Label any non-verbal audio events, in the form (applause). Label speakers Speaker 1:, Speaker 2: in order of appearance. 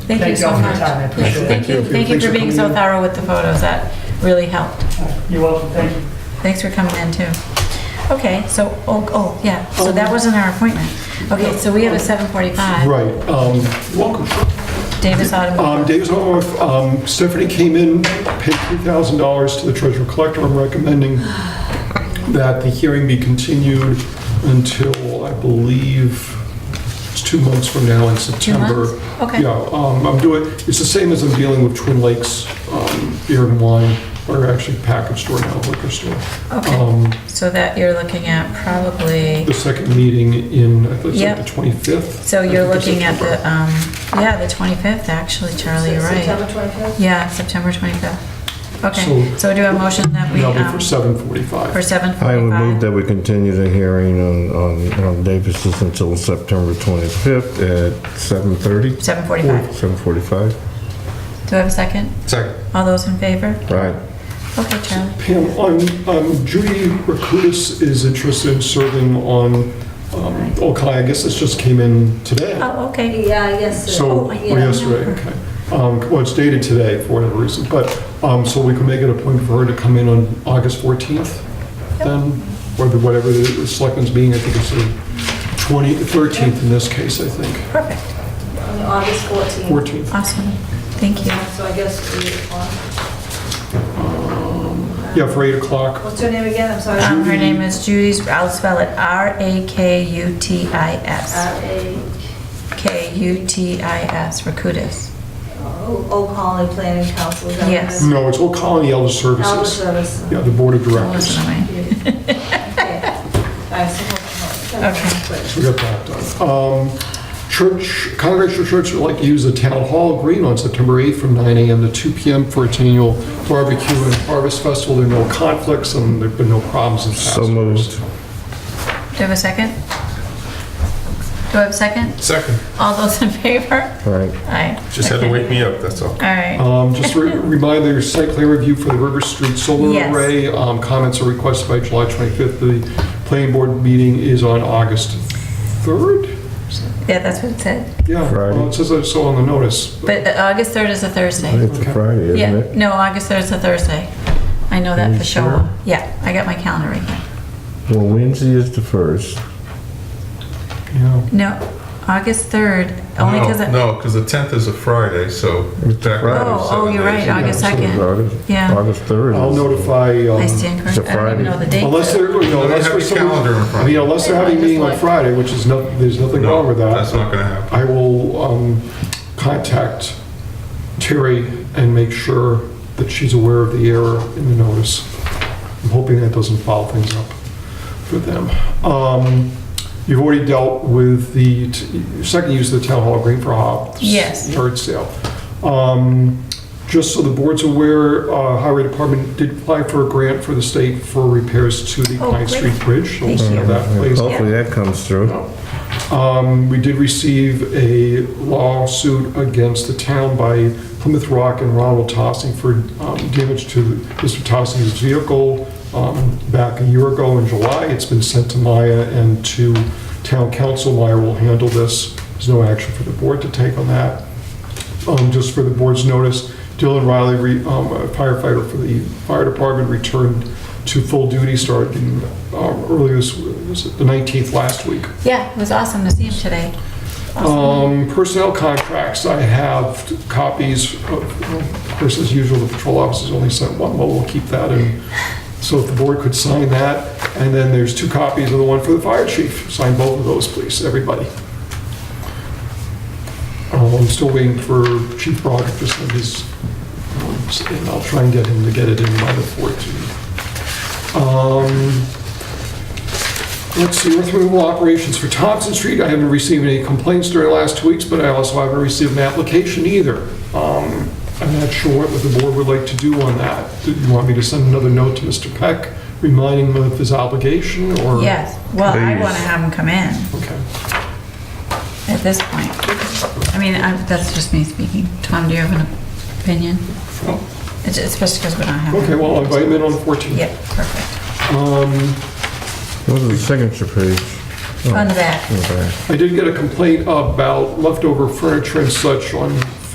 Speaker 1: Thank you so
Speaker 2: all for your
Speaker 1: much.
Speaker 2: time, I appreciate it.
Speaker 3: Thank you.
Speaker 1: Thank you for being so thorough with the photos, that really helped.
Speaker 2: You're welcome, thank you.
Speaker 1: Thanks for coming in, too. Okay, so, oh, oh, yeah, so that wasn't our appointment. Okay, so we have a 7:45,
Speaker 3: Right. um, Welcome.
Speaker 1: Davis
Speaker 3: Um,
Speaker 1: Automobile.
Speaker 3: Davis Automotive, um, Stephanie came in, paid $3,000 to the treasurer collector. I'm recommending that the hearing be continued until, I believe, it's two months from now in September.
Speaker 1: months? Okay.
Speaker 3: Yeah, um, I'm doing, it's the same as I'm dealing with Twin Lakes um, Beer and Wine, or actually package store now, liquor store.
Speaker 1: Okay,
Speaker 3: Um,
Speaker 1: so that you're looking at probably,
Speaker 3: The second meeting in, I think it's like
Speaker 1: Yep.
Speaker 3: the 25th.
Speaker 1: so
Speaker 3: I
Speaker 1: you're
Speaker 3: think it's
Speaker 1: looking at
Speaker 3: September.
Speaker 1: the, um, yeah, the 25th, actually, Charlie, you're right.
Speaker 4: September 25th?
Speaker 1: Yeah, September 25th. Okay,
Speaker 3: So-
Speaker 1: so do a motion that we,
Speaker 3: That'll be
Speaker 1: um,
Speaker 3: for
Speaker 1: for
Speaker 3: 7:45.
Speaker 1: 7:45.
Speaker 5: I would move that we continue the hearing on, on, on Davis's until September 25th at 7:30,
Speaker 1: 7:45.
Speaker 5: 7:45.
Speaker 1: Do I have a second?
Speaker 5: Second.
Speaker 1: All those in favor?
Speaker 5: Right.
Speaker 1: Okay, Charlie.
Speaker 3: Pam, I'm- um, Judy Rakutis is interested in serving on um, Okai, I guess this just came in today.
Speaker 1: Oh, okay.
Speaker 4: Yeah, yes. sir.
Speaker 3: So,
Speaker 4: Oh,
Speaker 3: or
Speaker 4: yeah.
Speaker 3: yesterday, okay. Um, Well, it's dated today for whatever reason, but, um, so we can make it a point for her to come in on August 14th then, or the- whatever the selectmen's meeting, I think it's the 20, 13th in this case, I think,
Speaker 1: Perfect.
Speaker 4: On August 14th.
Speaker 3: 14th.
Speaker 1: Awesome. Thank you.
Speaker 4: So I guess we, uh,
Speaker 3: Yeah, for 8 o'clock.
Speaker 4: what's her name again? I'm sorry.
Speaker 1: Um, her name is Judy's, I'll spell it R-A-K-U-T-I-S.
Speaker 4: At
Speaker 1: K-U-T-I-S, Rakutis.
Speaker 4: Old Colony oh, Planning Council. is that what it
Speaker 1: Yes.
Speaker 4: is?
Speaker 3: No, it's Old Colony Elder
Speaker 4: Elder
Speaker 3: Services.
Speaker 4: Service.
Speaker 3: Yeah, the Board of
Speaker 1: Don't
Speaker 3: Directors.
Speaker 1: listen to me.
Speaker 4: (laughs) Yeah. I support that.
Speaker 1: Okay.
Speaker 3: So we got that done. Um, Church, Congregational Church would like to use the Town Hall Green on September 8th from 9 a.m. to 2 p.m. for its annual barbecue and harvest festival. There are no conflicts and there've been no problems in past
Speaker 5: So
Speaker 3: years.
Speaker 5: moved.
Speaker 1: Do I have a second? Do I have a second?
Speaker 6: Second,
Speaker 1: All those in favor?
Speaker 5: Right.
Speaker 1: Aye.
Speaker 6: just had to wake me up, that's all.
Speaker 1: All right.
Speaker 3: Um, Just a
Speaker 1: (laughs)
Speaker 3: re- reminder, your site plan review for the River Street Solar
Speaker 1: Yes.
Speaker 3: Array. um, Comments are requested by July 25th. The planning board meeting is on August 3rd?
Speaker 1: Yeah, that's what it said.
Speaker 3: Yeah,
Speaker 5: Friday.
Speaker 3: well, it says I saw on the notice.
Speaker 1: But uh, August 3rd is a Thursday.
Speaker 5: It's a Friday,
Speaker 1: Yeah,
Speaker 5: isn't it?
Speaker 1: no, August 3rd is a Thursday. I know that
Speaker 5: you
Speaker 1: for sure.
Speaker 5: sure?
Speaker 1: Yeah, I got my calendar right here.
Speaker 5: Well, Wednesday is the first.
Speaker 3: Yeah.
Speaker 1: No, August 3rd, only
Speaker 6: No,
Speaker 1: because, oh,
Speaker 6: No, because the 10th is a Friday, so.
Speaker 5: It's
Speaker 6: back
Speaker 5: Friday.
Speaker 6: on
Speaker 1: oh,
Speaker 6: seven
Speaker 1: you're right,
Speaker 6: days.
Speaker 1: August
Speaker 5: So uh, it's
Speaker 1: 2nd.
Speaker 5: August-
Speaker 1: Yeah.
Speaker 5: August 3rd.
Speaker 3: I'll um,
Speaker 5: is-
Speaker 3: noticted.
Speaker 1: I stand
Speaker 5: It's a
Speaker 1: corrected. I don't even
Speaker 5: Friday.
Speaker 1: know the date.
Speaker 3: Unless they're, you know,
Speaker 6: They
Speaker 3: unless
Speaker 6: have
Speaker 3: for
Speaker 6: your
Speaker 3: some,
Speaker 6: calendar in front
Speaker 3: I
Speaker 6: of
Speaker 3: mean,
Speaker 6: you.
Speaker 3: unless they're having a meeting on Friday, which is no, there's nothing wrong
Speaker 6: No,
Speaker 3: with
Speaker 6: that's
Speaker 3: that.
Speaker 6: not gonna happen.
Speaker 3: I will um, contact Terry and make sure that she's aware of the error in the notice. I'm hoping that doesn't foul things up for them. Um, You've already dealt with the t- second use of the town hall green for Hobbs.
Speaker 1: Yes.
Speaker 3: Yard sale. Um, Just so the board's aware, uh, Highway Department did apply for a grant for the state for repairs to the
Speaker 1: Oh,
Speaker 3: Pine
Speaker 1: great.
Speaker 3: Street Bridge. So we'll
Speaker 1: Thank
Speaker 3: see how
Speaker 1: you.
Speaker 3: that plays out.
Speaker 5: Hopefully that comes through.
Speaker 3: Um, We did receive a lawsuit against the town by Plymouth Rock and Ronald Tossing for um, damage to Mr. Tossing's vehicle um, back a year ago in July. It's been sent to Maya and to town council. Maya will handle this. There's no action for the board to take on that. Um, Just for the board's notice, Dylan Riley, re- um, a firefighter for the fire department, returned to full duty starting um, earlier this, was it the 19th last week.
Speaker 1: Yeah, it was awesome to see him today.
Speaker 3: Um, Personnel contracts, I have copies, of of course, as usual, the patrol officers only sent one, but we'll keep that in. So if the board could sign that, and then there's two copies of the one for the fire chief. Sign both of those, please, everybody. Um, I'm still waiting for Chief Broderick to send his, um, and I'll try and get him to get it in by the 14th. Um, Let's see, earth removal operations for Thompson Street, I haven't received any complaints during the last two weeks, but I also haven't received an application either. Um, I'm not sure what the board would like to do on that. Do you want me to send another note to Mr. Peck, reminding him of his obligation, or?
Speaker 1: Yes, well, I
Speaker 5: Please.
Speaker 1: want to have him come in
Speaker 3: Okay.
Speaker 1: at this point. I mean, I'm- that's just me speaking. Tom, do you have an opinion? It's- Especially because we're not having.
Speaker 3: Okay, well, I'll invite him in on the 14th.
Speaker 1: Yeah, perfect.
Speaker 3: Um,
Speaker 5: What's the signature page?
Speaker 1: On the back.
Speaker 5: Okay.
Speaker 3: I did get a complaint about leftover furniture and such on